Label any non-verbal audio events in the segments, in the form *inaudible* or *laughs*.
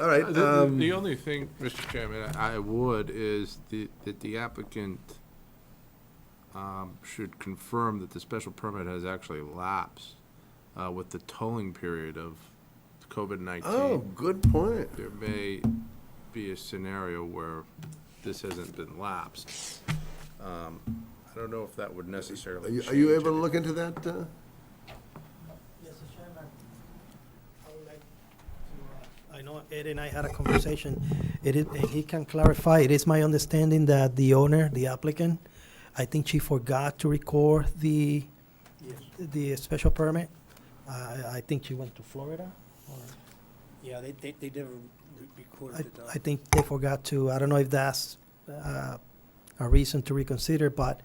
All right, Uh, The- The, um, the only thing, Mr. Chairman, I I would is the, that the applicant um, should confirm that the special permit has actually lapsed uh, with the tolling period of COVID-19. oh, good point. There may be a scenario where this hasn't been lapsed. Um, I don't know if that would Are necessarily you, change. are you able to it. look into that? uh? Mr. Chairman, I would like to, uh, I know Ed and I had a conversation. It is, and he can clarify, it is my understanding that the owner, the applicant, I think she forgot to record the, the special permit. I, I think she went to Florida, or, Yeah, they, they, they never re- recorded I, it. uh, I think they forgot to, I don't know if that's, uh, a reason to reconsider, but,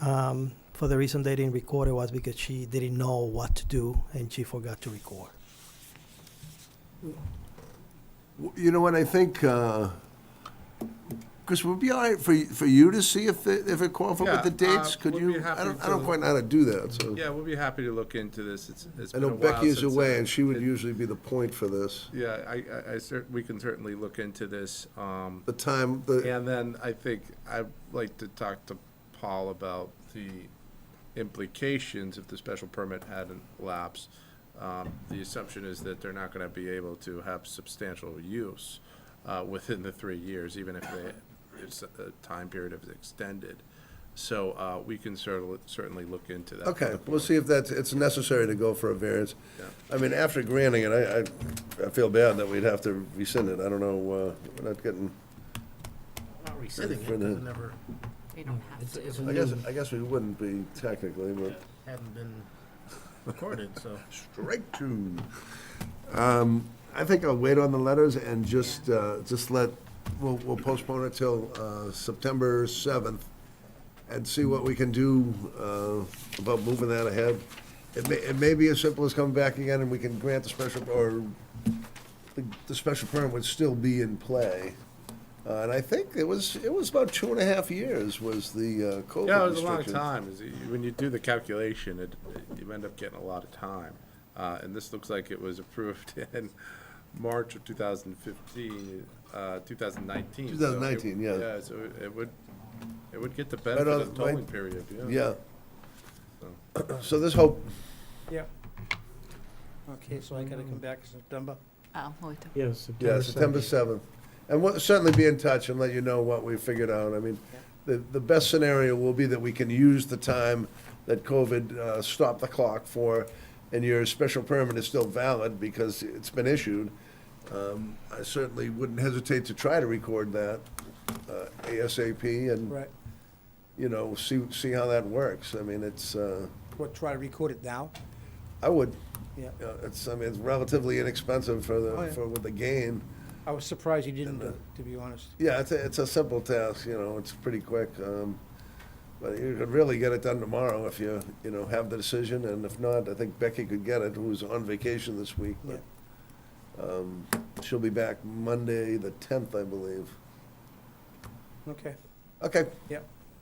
um, for the reason they didn't record it was because she didn't know what to do, and she forgot to record. W- You know what, I think, because it would be all right for, y- for you to see if, it- if it qualified with the Yeah, uh, dates? Could we'll be you, I happy don't, I to- don't quite know how to do that, so. Yeah, we'll be happy to look into this. It's, it's I been a know while Becky is since away, I- and she would it- usually be the point for this. Yeah, I, I- I cer, we can certainly look into this. Um, The time, the, and then I think I'd like to talk to Paul about the implications if the special permit hadn't lapsed. Um, the assumption is that they're not gonna be able to have substantial use, uh, within the three years, even if they, it's, the time period is extended. So, uh, we can certainly, certainly look into that. okay, we'll see if that's, it's necessary to go for a variance. Yeah. I mean, after granting it, I, I, I feel bad that we'd have to rescind it. I don't know, uh, we're not getting, Not rescinding for it, the- we've never, They don't have it's, to. it's a Mm. I guess, Mm. new, I guess we wouldn't be technically, but. hadn't been recorded, so. Strike two. Um, I think I'll wait on the letters and just, uh, just let, we'll, we'll postpone it till, uh, September seventh and see what we can do, uh, about moving that ahead. It may, it may be as simple as coming back again and we can grant the special, or the, the special permit would still be in play. Uh, and I think it was, it was about two and a half years was the, uh, COVID restriction. Yeah, it was a long time. Is it- When you do the calculation, it, it- you end up getting a lot of time. Uh, and this looks like it was approved *laughs* in March of two thousand fifteen, uh, two thousand nineteen. 2019, yeah. Yeah, so it- it would, it would get the Right benefit on- of the tolling right- period, yeah. Yeah. So this hope, Yeah. Okay, so I gotta come back in September? Oh, we'll do- Yes. Yeah, September seventh. And we'll certainly be in touch and let you know what we figured out. I mean, the, the best scenario will be that we can use the time that COVID uh, stopped the clock for, and your special permit is still valid because it's been issued. Um, I certainly wouldn't hesitate to try to record that uh, ASAP and, Right, you know, see, see how that works. I mean, it's, uh, what, try to record it now? I would, Yeah, you know, it's, I mean, it's relatively inexpensive for Oh, the, yeah. for what the gain. I was surprised you didn't do uh, it, to be honest. Yeah, it's a, it's a simple task, you know, it's pretty quick. um, But you could really get it done tomorrow if you, you know, have the decision, and if not, I think Becky could get it, who's on vacation this week. but, um, She'll be back Monday, the tenth, I believe. Okay, Okay,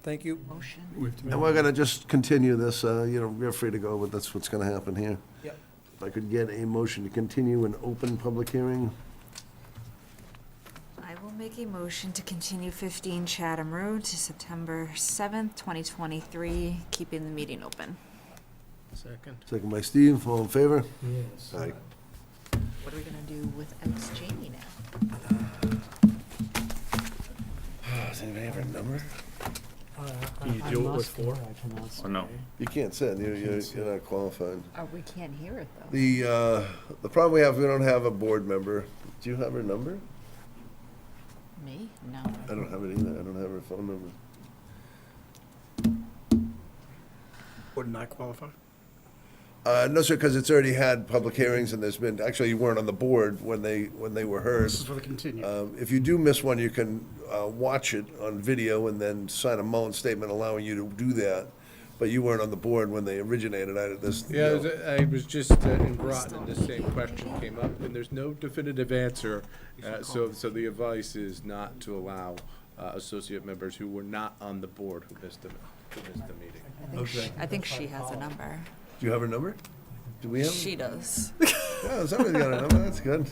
thank you. motion. and we're gonna just continue this, uh, you know, you're free to go, but that's what's gonna happen here. Yep. If I could get a motion to continue an open public hearing. I will make a motion to continue 15 Chatham Road to September 7th, 2023, keeping the meeting open. Second. Second by Steve, all in favor? Yes. Aye. What are we gonna do without Jamie now? Uh, Does anybody have a number? Can you do it with four? Or no? You can't sit, you're, you're you're not qualified. Oh, we can't hear it, though. The, uh, the problem we have, we don't have a board member. Do you have her number? Me? No. I don't have it either. I don't have her phone number. Would not qualify? Uh, no, sir, because it's already had public hearings and there's been, actually, you weren't on the board when they, when they were heard. for the continue. Um, if you do miss one, you can, uh, watch it on video and then sign a Mullen statement allowing you to do that. But you weren't on the board when they originated out of this. Yeah, I you was- know. I was just uh, in Groton, and the same question came up, and there's no definitive answer. Uh, So, so the advice is not to allow uh, associate members who were not on the board who missed the, who missed the meeting. I think she- I think she has a number. Do you have her number? Do we have? She does. Yeah, somebody's got a number. That's good.